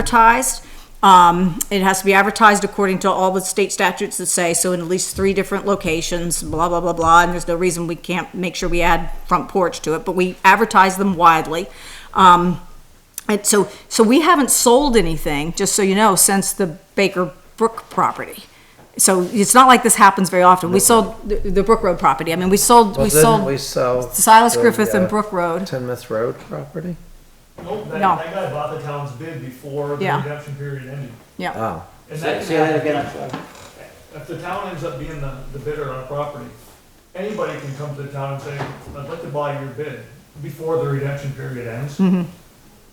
advertised. Um, it has to be advertised according to all the state statutes that say, so in at least three different locations, blah, blah, blah, blah, and there's no reason we can't make sure we add front porch to it, but we advertise them widely. Um, and so, so we haven't sold anything, just so you know, since the Baker Brook property. So it's not like this happens very often. We sold the, the Brook Road property. I mean, we sold, we Well, didn't we sold sell? Silas the, Griffith and uh, Brook Road. Tinmouth Road property? Nope, that, No. that guy bought the town's bid before the Yeah. redemption period ended. Yeah. Oh, And Say that say that again, I'm sorry. If the town ends up being the, the bidder on a property, anybody can come to the town and say, I'd like to buy your bid before the redemption period ends.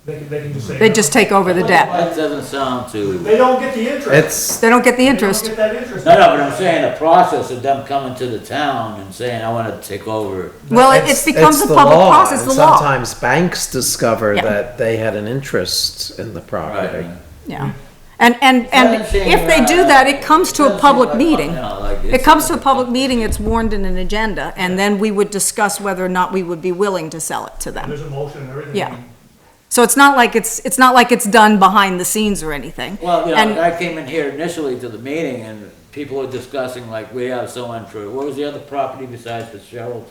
They can, they can just say. Mm-hmm. They just take over the debt. That doesn't sound too, no, They don't get the interest. it's, They don't get the They don't interest. get that interest. no, but I'm saying the process of them coming to the town and saying, I wanna take over. Well, it, it's- it becomes a it's the public law, process, and the law. Sometimes banks discover Yeah. that they had an interest in the property. Right. Yeah. And, and, and Doesn't if they do seem, uh, that, it comes to a doesn't public seem like- meeting. you know, like It it's- comes to a public meeting, it's warned in an agenda, and then we would discuss whether or not we would be willing to sell it to them. There's a motion and everything. Yeah. So it's not like it's, it's not like it's done behind the scenes or anything. Well, you And- know, I came in here initially to the meeting and people were discussing like, we have someone for, what was the other property besides Fitzgerald?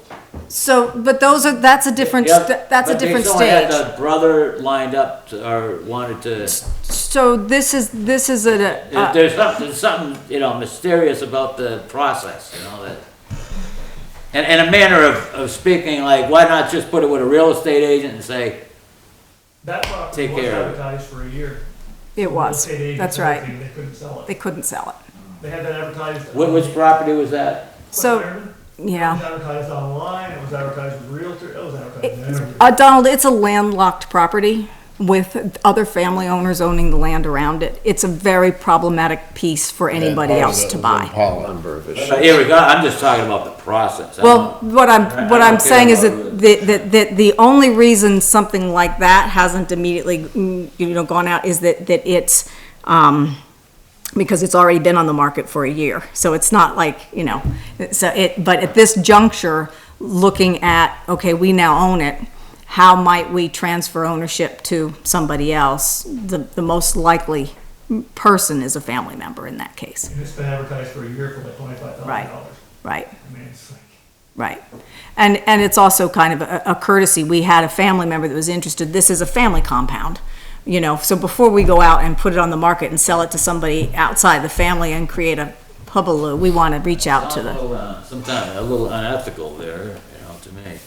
So, but those are, that's a different, Yeah, st- that's a but they different still had stage. the Brother lined up to- or wanted to, So this is, this is a, uh, there's something, there's something, you know, mysterious about the process, you know, that. And, and a manner of, of speaking, like, why not just put it with a real estate agent and say, That property Take was care of it. advertised for a year. it was, Estate agents, that's right. everything, They couldn't sell They it. couldn't sell it. They had that advertised. which, which property was that? So, It was yeah. advertised online, it was advertised with Realtor, it was advertised in everything. Uh, Donald, it's a landlocked property with other family owners owning the land around it. It's a very problematic piece for anybody else to buy. Number of issues. But here we go, I'm just talking about the process. I Well, don't- what I'm, what I I'm don't care saying is that, about the- that, that the only reason something like that hasn't immediately, mm, you know, gone out is that, that it's, um, because it's already been on the market for a year. So it's not like, you know, so it, but at this juncture, looking at, okay, we now own it, how might we transfer ownership to somebody else? The, the most likely person is a family member in that case, And it's been advertised for a year for like twenty-five Right. thousand dollars. right? I mean, it's like, Right. And, and it's also kind of a a courtesy. We had a family member that was interested. This is a family compound, you know, so before we go out and put it on the market and sell it to somebody outside the family and create a hubbub, we want to reach out to A the, little, uh, Sometimes a little unethical there, you know, to me.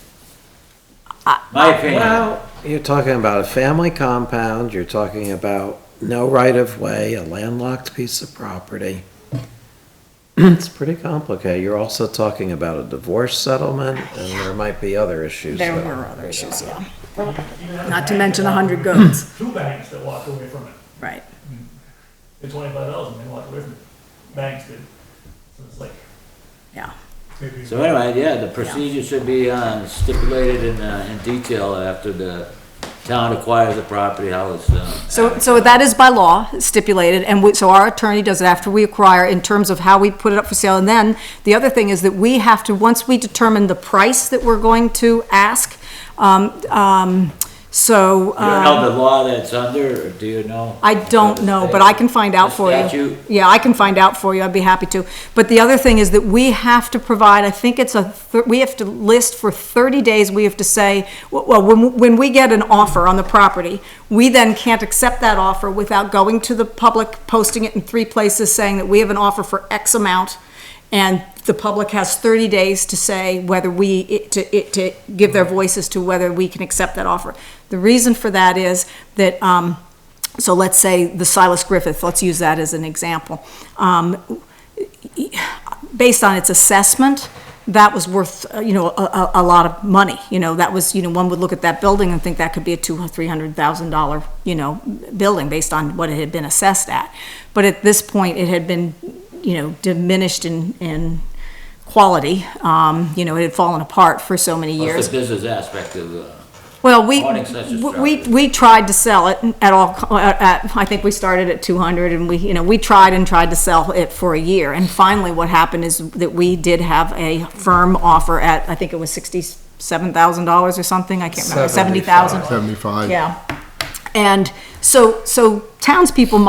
My opinion, Well, you're talking about a family compound, you're talking about no right of way, a landlocked piece of property. It's pretty complicated. You're also talking about a divorce settlement, and there might be other issues. there that- were other issues, yeah. you know, Not there's to a mention bank that 100 walked away- goats. Two banks that walked away from it, Right. It's twenty-five thousand, they walked away from it, banks did. So it's like. Yeah. maybe- so anyway, yeah, the procedure should be um, stipulated in, uh, in detail after the town acquires the property, how it's, um. So, so that is by law stipulated, and we, so our attorney does it after we acquire in terms of how we put it up for sale. And then, the other thing is that we have to, once we determine the price that we're going to ask, um, um, so. You um, don't know the law that's under, or do you know? I don't know, but I can find out for you. The statute? Yeah, I can find out for you, I'd be happy to. But the other thing is that we have to provide, I think it's a, thir- we have to list for 30 days, we have to say, well, when, when we get an offer on the property, we then can't accept that offer without going to the public, posting it in three places, saying that we have an offer for X amount, and the public has 30 days to say whether we, it- to, it- to give their voices to whether we can accept that offer. The reason for that is that, um, so let's say the Silas Griffith, let's use that as an example. Um, based on its assessment, that was worth, uh, you know, a, a, a lot of money. You know, that was, you know, one would look at that building and think that could be a two, three hundred thousand dollar, you know, building based on what it had been assessed at. But at this point, it had been, you know, diminished in, in quality. Um, you know, it had fallen apart for so many years. What's the business aspect of, uh, Well, we, Wanting such a w- we, structure. we tried to sell it at all, co- at- at, I think we started at two hundred and we, you know, we tried and tried to sell it for a year. And finally, what happened is that we did have a firm offer at, I think it was sixty-seven thousand dollars or something, I can't remember, seventy thousand. Seventy-five. Yeah. And So, so townspeople